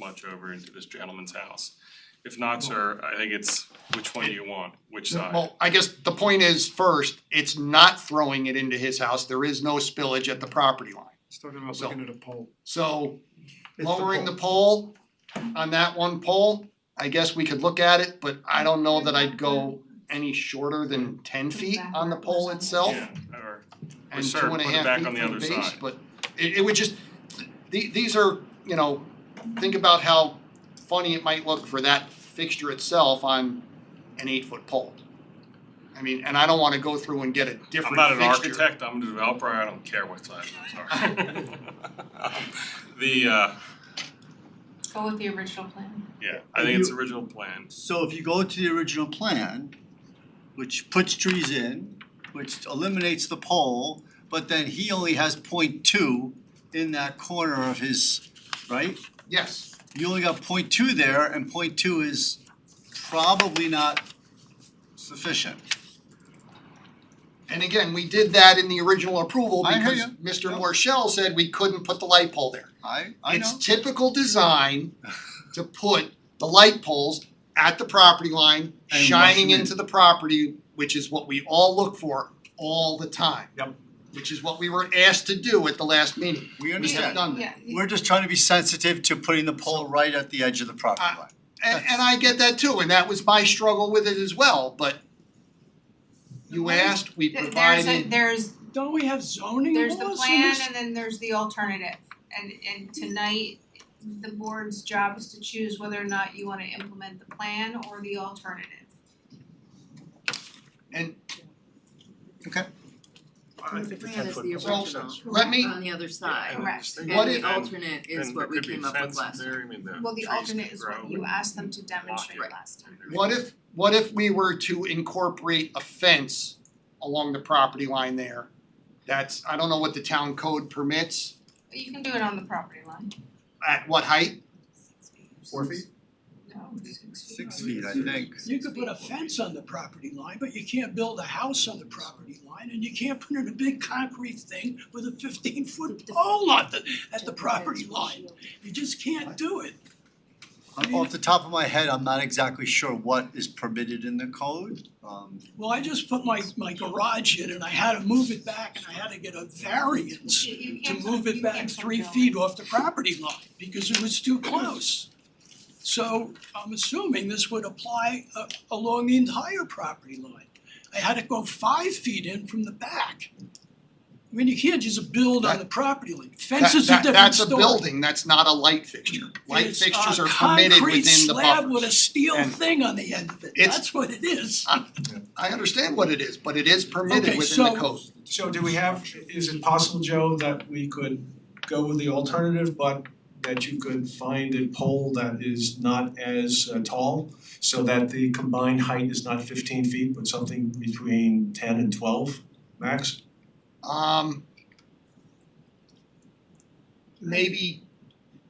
much over into this gentleman's house. If not, sir, I think it's which one do you want, which side? Well, I guess the point is, first, it's not throwing it into his house, there is no spillage at the property line. He's talking about So- looking at a pole. So It's lowering the pole on that one pole, I guess we could look at it, but I don't know that I'd go any shorter than ten feet on the pole itself Yeah, or- and sir, two and a put it half back feet on the from other the base, side. but it it would just, the these are, you know, think about how funny it might look for that fixture itself on an eight foot pole. I mean, and I don't wanna go through and get a different fixture. I'm not an architect, I'm a developer, I don't care what side those are. The, uh, Go with the original plan. yeah, I think it's original plan. So if you go to the original plan, which puts trees in, which eliminates the pole, but then he only has 0.2 in that corner of his, right? Yes, You only got 0.2 there and 0.2 is probably not sufficient. and again, we did that in the original approval I hear because Mr. Morchell said we couldn't put the light pole there. I I know. It's typical design to put the light poles at the property line, And rush shining them in. into the property, which is what we all look for all the time. Yep. Which is what we were asked to do at the last meeting. We We have understand. done that. Yeah, We're just trying to be sensitive to putting the pole right at the edge of the property I- line. And and I get that too, and that was my struggle with it as well, but you asked, we Th- there's a, provided, there's, Don't we have zoning there's the laws for plan this? and then there's the alternative. And, and tonight, the board's job is to choose whether or not you wanna implement the plan or the alternative. and I think the plan is 10 -foot the pole. original. let me- On the other side. Correct. And What And if- the alternate is what we came up with last time. Well, the alternate is what you asked them to demonstrate Right. last time. what if, what if we were to incorporate a fence along the property line there? That's, I don't know what the town code permits, But You can do it on the property line. at what height? Four feet? No, six feet. Six feet, I think. You could put a fence on the property line, but you can't build a house on the property line, and you can't put in a big concrete thing with a fifteen foot pole at the, at the property line. You just can't do it. Um, Off the top of my head, I'm not exactly sure what is permitted in the code. Um Well, I just put my, my garage in and I had to move it back and I had to get a variance You- you to can't put- move it you back can't put a three building. feet off the property line because it was too close. So I'm assuming this would apply uh, along the entire property line. I had to go five feet in from the back. I mean, you can't just build on the property line. Fence is That- a that- different That's a story. building, that's not a light fixture. Light It's fixtures a are permitted concrete within the slab with a buffers. steel And- thing on the end of it. It's- That's what it is. I understand what it is, but it is permitted Okay, within the so- code. So do we have, is it possible, Joe, that we could go with the alternative, but that you could find a pole that is not as uh, tall? So that the combined height is not fifteen feet, but something between ten and twelve max? Um maybe,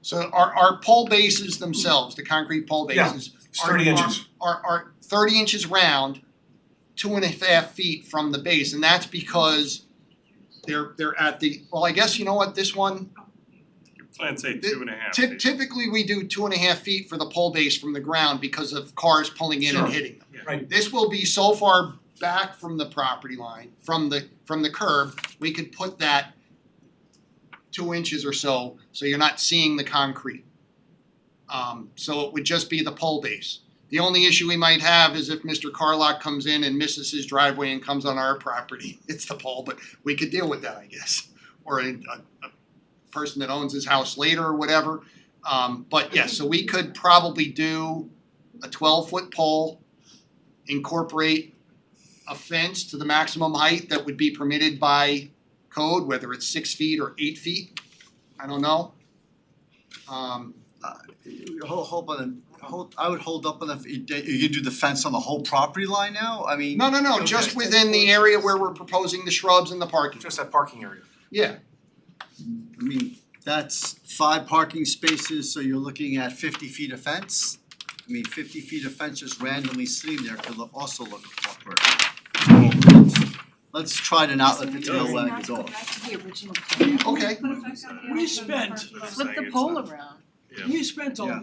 so our our pole bases themselves, the concrete pole Yeah, bases It's are thirty are- inches. Are are thirty inches round, two and a half feet from the base, and that's because they're they're at the, well, I guess you know what, this one, Your plan say two and a half Typ- feet. typically, we do two and a half feet for the pole base from the ground because of cars pulling in and Sure. hitting them. Yeah. Right. This will be so far back from the property line, from the, from the curb, we could put that two inches or so, so you're not seeing the concrete. Um, so it would just be the pole base. The only issue we might have is if Mr. Carlock comes in and misses his driveway and comes on our property, it's the pole, but we could deal with that, I guess. Or a, a, a person that owns his house later or whatever. Um, but yes, so we could probably do a twelve foot pole, incorporate a fence to the maximum height that would be permitted by code, whether it's six feet or eight feet, I don't know. Um, Hold, hold on, hold, I would hold up on the, you you do the fence on the whole property line now? I mean, no, no, no, just Okay. within the area where we're proposing the shrubs and the parking. Just that parking area. Yeah, I mean, that's five parking spaces, so you're looking at fifty feet of fence? I mean, fifty feet of fence just randomly sitting there could look- also look awkward. Let's try to not let the tail wag the dog. okay. We spent, Saying Flip the it's pole not- around. Yeah. we spent a Yeah.